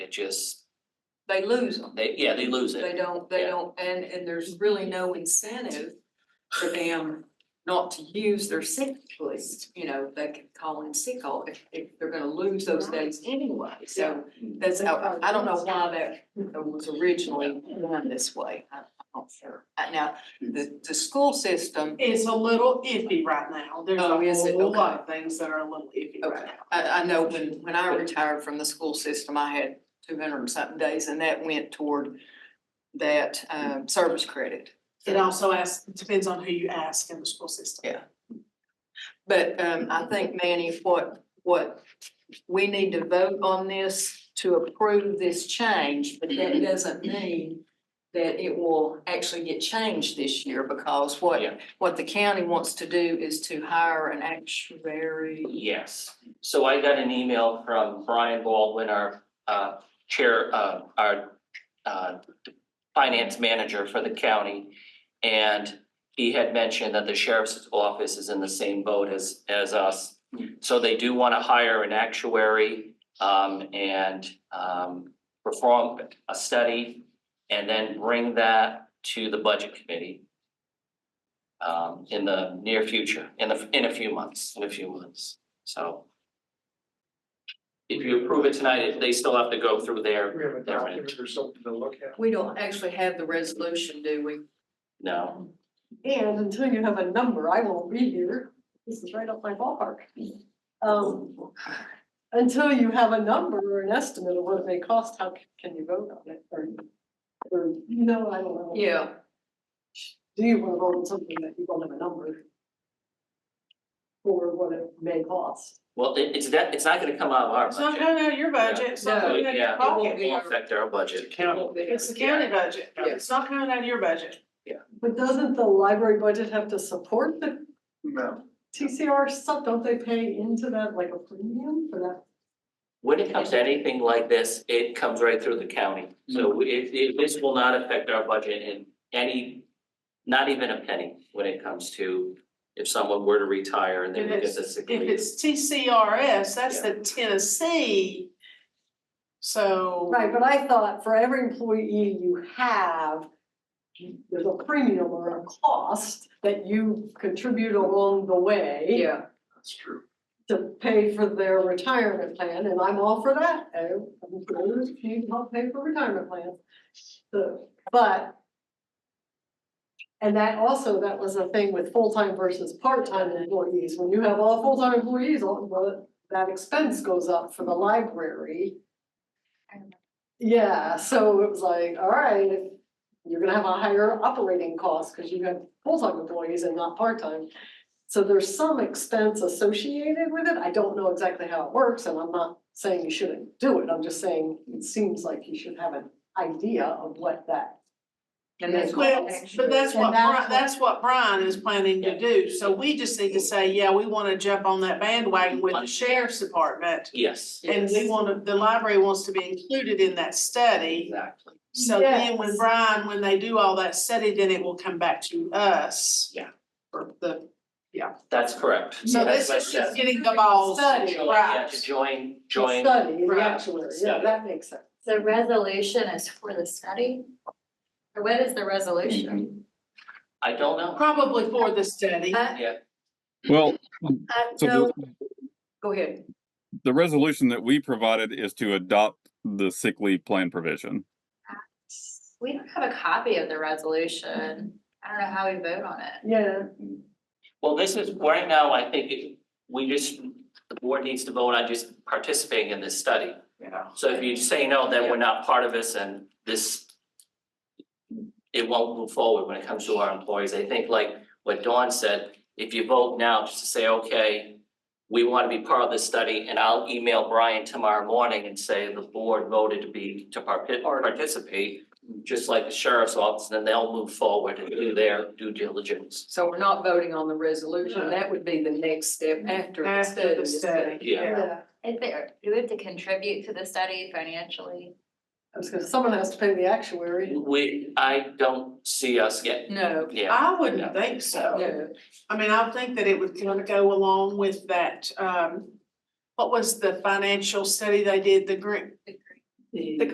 it just, they lose them. they, yeah, they lose They it. don't, they Yeah. don't, and, and there's really no incentive for them not to use their sick leave. You know, they can call in sick all if, if they're gonna lose those days anyway, so that's how, I don't know why that was originally done this way. I- I'm not sure. Uh, Now, the, the school system, It's a little iffy right now. There's Oh, is a it? whole Okay. lot of things that are a little iffy right Okay. now. I, I know when, when I retired from the school system, I had two hundred and something days and that went toward that, um, service credit. It also asks, depends on who you ask in the school system. But um, I think Manny, what, what, we need to vote on this to approve this change, but that doesn't mean that it will actually get changed this year because what, Yeah. what the county wants to do is to hire an actuary. Yes, so I got an email from Brian Baldwin, our uh chair, uh our uh finance manager for the county. And he had mentioned that the sheriff's office is in the same boat as as us. So they do wanna hire an actuary um and um perform a study and then bring that to the budget committee. Um in the near future, in the in a few months, in a few months, so. If you approve it tonight, if they still have to go through their, We have a They're right. document or something to look at. We don't actually have the resolution, do we? no, And until you have a number, I won't be here. This is right up my ballpark. Um, until you have a number or an estimate of what it may cost, how c- can you vote on it? Or, or, you know, I don't know. Yeah, Do you want to vote on something that you don't have a number? For what it may cost? well, it it's that, it's not gonna come out of our It's not budget. coming out of your budget, it's not No. coming out of Yeah. your It won't pocket. be. It won't affect our It's a budget. county. It's the county budget. Yeah. It's not coming out of your budget. But doesn't the library budget have to support the No, TCR stuff? Don't they pay into that like a premium for that? When it comes to anything like this, it comes right through the county, so it it this will not affect our budget in any. Not even a penny when it comes to if someone were to retire and they would get the sick If leave. it's TCRS, that's the Tennessee. So, Right, but I thought for every employee you have, there's a premium or a cost that you contribute along the way yeah. that's true. to pay for their retirement plan, and I'm all for that. I'm for it, you can help pay for retirement plans. So, but and that also, that was a thing with full-time versus part-time employees. When you have all full-time employees, all, well, that expense goes up for the library. Yeah, so it was like, all right, if you're gonna have a higher operating cost because you have full-time employees and not part-time. So there's some expense associated with it. I don't know exactly how it works and I'm not saying you shouldn't do it. I'm just saying it seems like you should have an idea of what that. And that's. well, but that's what, And that's Bri- that's what Brian is planning to do. So we just need to say, yeah, we wanna jump on that bandwagon with the sheriff's department. Yes, And we Yes. wanna, the library wants to be included in that study. exactly, So then when Yes. Brian, when they do all that study, then it will come back to us. Yeah. For the, that's correct. so That's this what I is just said. getting the balls. Study, Join, yeah, to right. join, The join, Study, the Right. actuary, yeah, Study. that makes sense. The resolution is for the study? Or what is the resolution? I don't know, Probably for the study. Uh, Well, I so the, Go ahead. the resolution that we provided is to adopt the sick leave plan provision. we don't have a copy of the resolution. I don't know how we vote on it. Yeah, well, this is, right now, I think it- we just, the board needs to vote on just participating in this study. Yeah. So if you say no, then we're not part of this and this. It won't move forward when it comes to our employees, I think like what Dawn said, if you vote now just to say, okay. We want to be part of this study and I'll email Brian tomorrow morning and say the board voted to be to parti- participate. Just like the sheriff's office, then they'll move forward and do their due diligence, So we're not voting on the resolution. That would be the next step after the study. After the is study, done. yeah. yeah. Is there, do we have to contribute to the study financially? I was gonna, someone has to pay the actuary. We, I don't see us getting, No, yeah, I wouldn't think so. no. I mean, I think that it would kind of go along with that, um, what was the financial study they did, the grant? the